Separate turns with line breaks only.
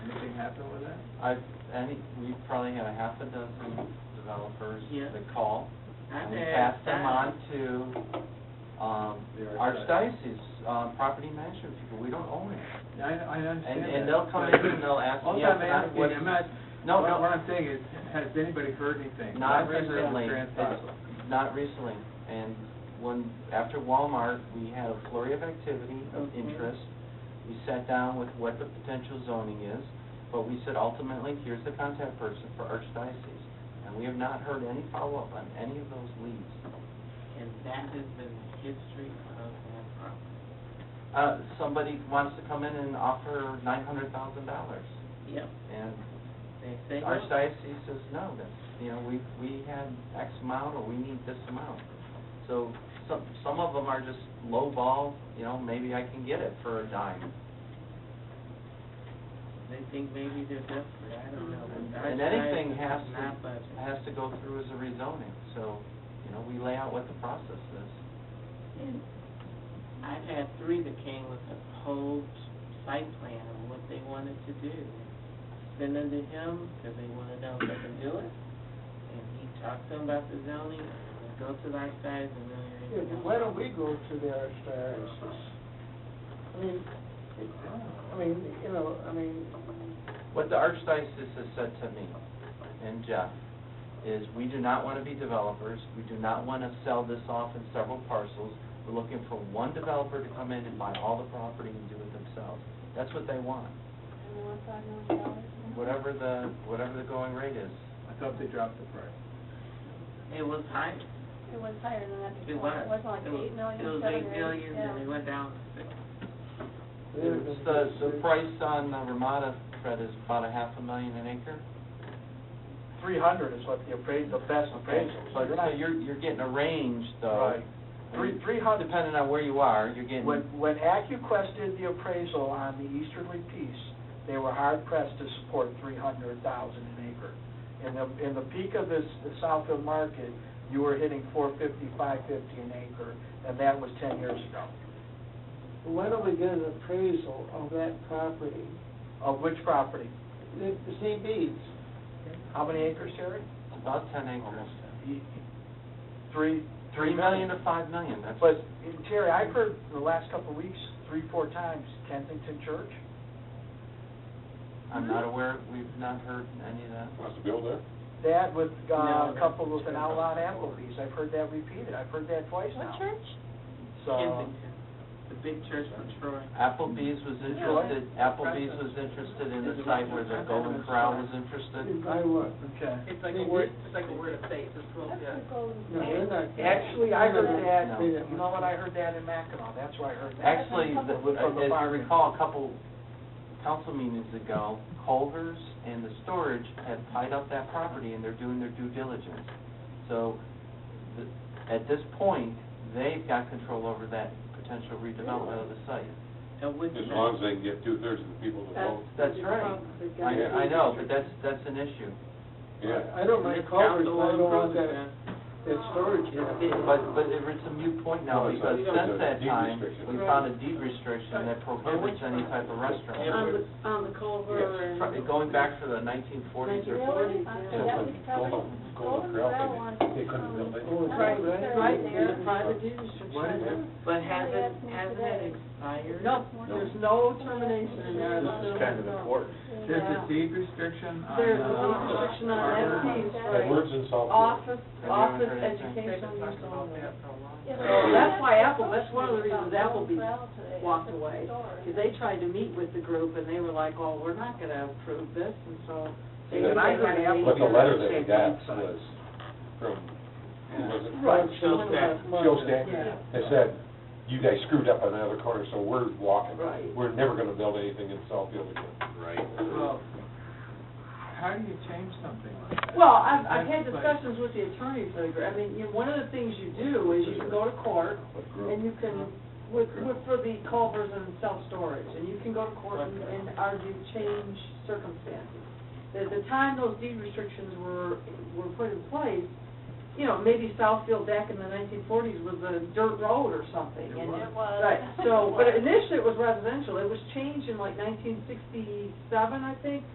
happen with that?
I, I think we probably had a half a dozen developers
Yeah.
that call.
I've
And we
had
passed them
five.
on to, um,
The archdiocese.
archdiocese, um, property management people, we don't own it.
I, I understand
And, and
that,
they'll come in
but-
and they'll ask,
All
yeah,
I'm
not
asking,
what,
I'm not,
No,
what
no.
what I'm saying is, has anybody heard anything?
not
Last time there was
recently,
Grand
It's-
Theft.
not recently. And when, after Walmart, we had a flurry of activity of
Okay.
interest. We sat down with what the potential zoning is, but we said ultimately, here's the contact person for archdiocese. And we have not heard any follow-up on any of those leads.
And that has been the history of that problem.
Uh, somebody wants to come in and offer nine hundred thousand dollars,
Yep,
and
they
the
say. no.
archdiocese says, no, that's, you know, we, we had X amount, or we need this amount. So, some, some of them are just low ball. you know, maybe I can get it for a dime.
They think maybe they're desperate, I don't know.
And-
The
and anything
archdiocese
has
is
to-
Not budget.
It has to go through as a rezoning, so, you know, we lay out what the process is.
And I've had three that came with a whole site plan of what they wanted to do. Send them to him, because they want to know if they can do it, and he talks to them about the zoning, and they go to the archdiocese and really.
Yeah, but why don't we go to the archdiocese? I mean,
Oh,
I mean, you know, I mean,
What the archdiocese has said to me and Jeff is, we do not want to be developers, we do not want to sell this off in several parcels. We're looking for one developer to come in and buy all the property and do it themselves. That's what they want,
And they want five million dollars?
whatever the, whatever the going rate is.
I thought they dropped the price.
It was high.
It was higher than that
It
before.
was.
It wasn't like
It was-
eight million,
It was
seven
eight
or eight,
million,
yeah.
and it went down to six.
they're
It's
gonna
The,
get
the
six-
price on the Ramada, Fred, is about a half a million an acre.
Three hundred is what the appraisal, the best
Okay,
appraisal.
so so you're, you're getting a range though.
Right. Three, three hundred.
Depending on where you are, you're getting.
When, when AccuQuest did the appraisal on the easterly piece, they were hard pressed to support three hundred thousand an acre. In the, in the peak of this, the Southfield market, you were hitting four fifty, five fifty an acre, and that was ten years ago.
Why don't we get an appraisal of that property?
Of which property?
The the CB's,
How many acres, Terry?
It's about ten acres.
Three.
Three million to five million, that's.
But, Terry, I've heard in the last couple of weeks, three, four times, Kensington Church.
I'm not aware, we've not heard any of that.
Wants to build there?
That with uh,
No.
a couple with an outlawed Applebee's, I've heard that repeated, I've heard that twice
What
now.
church?
So,
Kensington, the big church from Troy.
Applebee's was interested, Applebee's was interested in the site where the Golden Corral was interested.
I would.
okay.
It's
like a word-
it's like a word of faith, it's
That's the Golden
No,
State.
they're not.
Actually, I heard that,
No.
you know what, I heard that in Mackinac, that's where I heard that.
Actually, the- as you recall, a couple council meetings ago, Culvers and the storage had tied up that property and they're doing their due diligence. So, th- at this point, they've got control over that potential redevelopment of the site.
And with
As
that-
long as they can get two-thirds of the people to vote.
That's right. I, I know, but that's, that's an issue.
Yeah.
I don't
This
mind Culvers,
council
but I don't want
approved
that, that storage. building.
But, but it- it's a moot point now,
No, it's
because
not. It's
since
a
that
deed
time, we
restriction.
found a deed restriction that prohibits any type of restaurant.
Yeah.
On the, on the Culver and,
Yes.
Fr- Going back to the nineteen forties or
Really?
forties.
Uh,
Yeah,
that
but
was probably-
Golden-
Golden
Golden Corral,
Corral
they-
wants
they couldn't
some-
build it.
Oh, it's
Right,
right
they're
right
there.
there, private deed restriction.
What is it?
But
They
hasn't,
asked me
hasn't
today.
it expired?
No, there's no termination in there.
This
It's kind of important.
There's a deed restriction on.
There's a
uh,
deed restriction on
Harvard.
that piece,
Yeah.
The
right?
words in Southfield.
Office,
Have you
office,
ever heard anything?
educational use only.
Yeah,
So
but-
that's why Apple, that's one of the reasons Applebee's
Corral today.
walked
It's a
away,
store.
Because they tried to meet with the group and they were like, oh, we're not gonna approve this, and so they. they
Yeah, but I
heard
kinda
Apple-
But the letter that we got
Same
was from, who was it?
Right, so
Right.
that's my-
Joe Stack.
Yeah.
They said, you guys screwed up on the other corner, so we're walking.
Right.
We're never gonna build anything in Southfield again.
Well, how do you change something like that?
Well, I've, I've
That's
had
like-
discussions with the attorney for the, gr- I mean, you know, one of the things you do is you can go to court and you can, with, with, for the culvers and self-storage, and you can go to court and, and argue change circumstances. At the time those deed restrictions were, were put in place, you know, maybe Southfield back in the nineteen forties was a dirt road or something,
It
and
was.
It was.
Right, so, but initially it was residential, it was changed in like nineteen sixty-seven, I think,